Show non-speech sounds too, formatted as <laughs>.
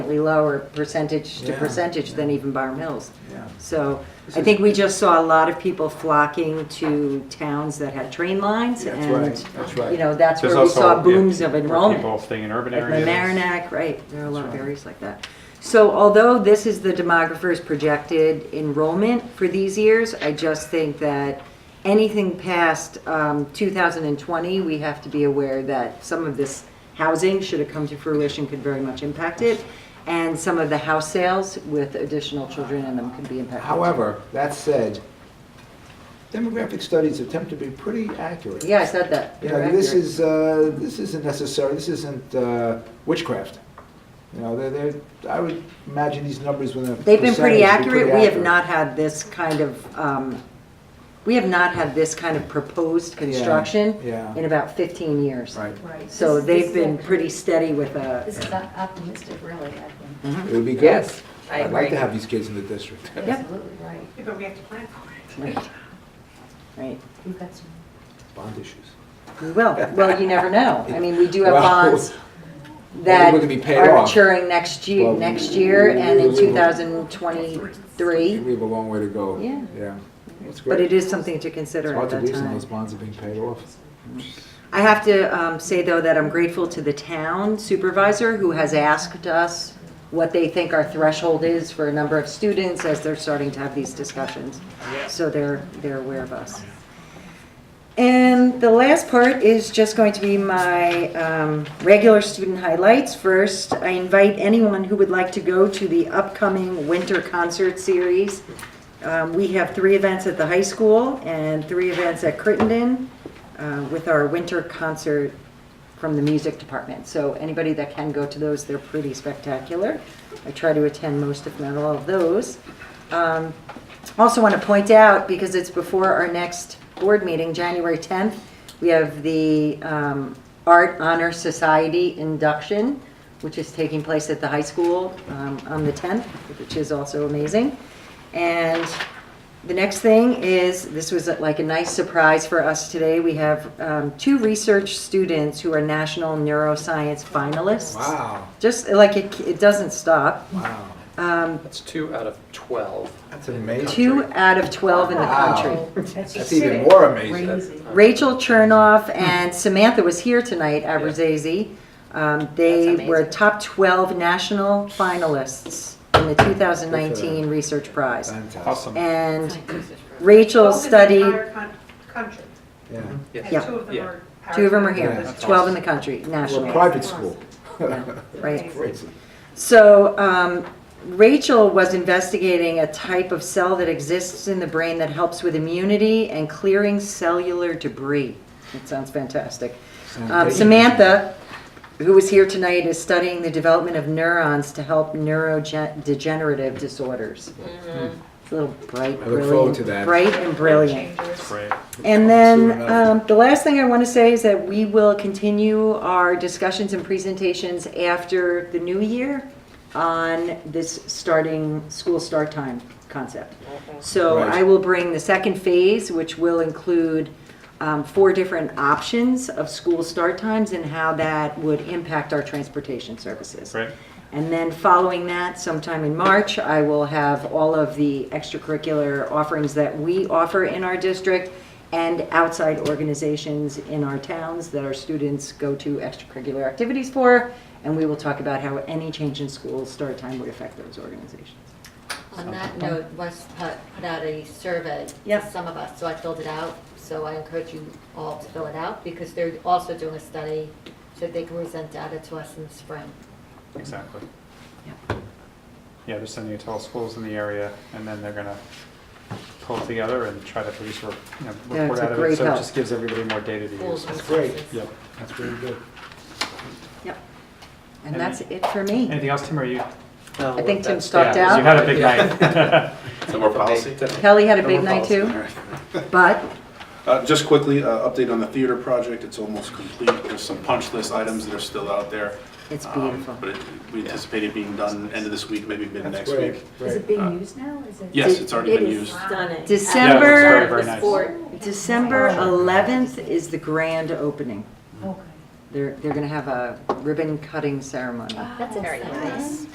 slightly lower percentage to Yeah, percentage than yeah. even Barn Hills. Yeah. So This I is- think we just saw a lot of people flocking to towns that had train lines That's and, right, that's right. you know, that's There's where we also, saw yeah, booms of where enrollment. People staying in urban Like areas. Mamaroneck, right, there are a lot of That's right. areas like that. So although this is the demographer's projected enrollment for these years, I just think that anything past um, 2020, we have to be aware that some of this housing, should it come to fruition, could very much impact it. And some of the house sales with additional children in them could be impacted. However, that said, demographic studies attempt to be pretty accurate. Yeah, I said that. You You're know, this accurate. is, uh, this isn't necessary, this isn't uh, witchcraft. You know, they're, they're, I would imagine these numbers within a They've been pretty percentage would be accurate. We have not had this kind of, um, we have not had this kind of proposed construction yeah. in about 15 years. Right. Right. So This- they've this been is- pretty steady with uh, This a, is optimistic, really, I think. It would be good. Yes, I I'd like agree. to have these kids in the district. You're Yep. Absolutely right. But we have to plan for it. right, We've got some. Bond issues. we will. Well, you never know. I mean, we do have <laughs> Well, bonds we're that gonna be paid are off. maturing next year, Well, next year and we- in we- 2023. We have a long way to go. Yeah. Yeah. That's But it great. is something to It's consider hard at to that believe some of those time. bonds are being paid off. I have to um, say, though, that I'm grateful to the town supervisor who has asked us what they think our threshold is for a number of students as they're starting to have these discussions. So they're, they're aware of us. And the last part is just going to be my um, regular student highlights. First, I invite anyone who would like to go to the upcoming winter concert series. Um, We have three events at the high school and three events at Crittenden uh, with our winter concert from the music department. So anybody that can go to those, they're pretty spectacular. I try to attend most, if not all, of those. Um, also want to point out, because it's before our next board meeting, January 10th, we have the um, Art Honor Society induction, which is taking place at the high school um, on the 10th, which is also amazing. And the next thing is, this was like a nice surprise for us today. We have um, two research students who are national neuroscience finalists. Wow, Just like, it it doesn't stop. wow. Um, That's two out of 12. That's amazing. Two out of 12 in the country. <laughs> That's even more amazing. Crazy. Rachel Chernoff and Samantha was here tonight, Abrazazi. Um, They That's were amazing. top 12 national finalists in the 2019 Research Prize. Fantastic. Awesome. And Right. Rachel Both in the studied, entire con- Country, Yeah. and Yeah. two of them Yeah. are. two of them are here, That's 12 in the country, national. Well, private school. Right. <laughs> Crazy. So um, Rachel was investigating a type of cell that exists in the brain that helps with immunity and clearing cellular debris. That sounds fantastic. Um, Samantha, who is here tonight, is studying the development of neurons to help neurodegenerative disorders. It's a little bright, I look forward brilliant, to that. bright and brilliant. Right. And Soon then, enough. um, the last thing I want to say is that we will continue our discussions and presentations after the new year on this starting, school start time concept. So Right. I will bring the second phase, which will include um, four different options of school start times and how that would impact our transportation services. Right. And then following that, sometime in March, I will have all of the extracurricular offerings that we offer in our district and outside organizations in our towns that our students go to extracurricular activities for. And we will talk about how any change in school start time would affect those organizations. On that note, West put put out a survey to Yep. some of us, so I filled it out. So I encourage you all to fill it out because they're also doing a study, so they can present data to us in the spring. Exactly. Yep. Yeah, they're sending it to all schools in the area, and then they're gonna pull it together and try to produce a, re- you know, Yeah, it's report a out of great it. So it help. just gives everybody more data to Schools use. and great. classes. Yep. That's pretty good. Yep. And that's it for me. Anything else, Tim, or you? I think Tim stopped Yeah, You out. had a <laughs> big night. <laughs> Some more policy? Kelly had a No big more night policy. too, All right. but Uh, Just quickly, uh, update on the theater project, it's almost complete, there's some punch list items that are still out there. it's Um, beautiful. But it- we anticipate it being done end of this week, maybe mid That's next great. week. Is it Great. being used now? Is it? Uh, Yes, it's already been used. stunning. Yeah, December, it looks very, very nice. December 11th is the grand opening. Okay. They're, they're going to have a ribbon cutting ceremony. That's Very exciting.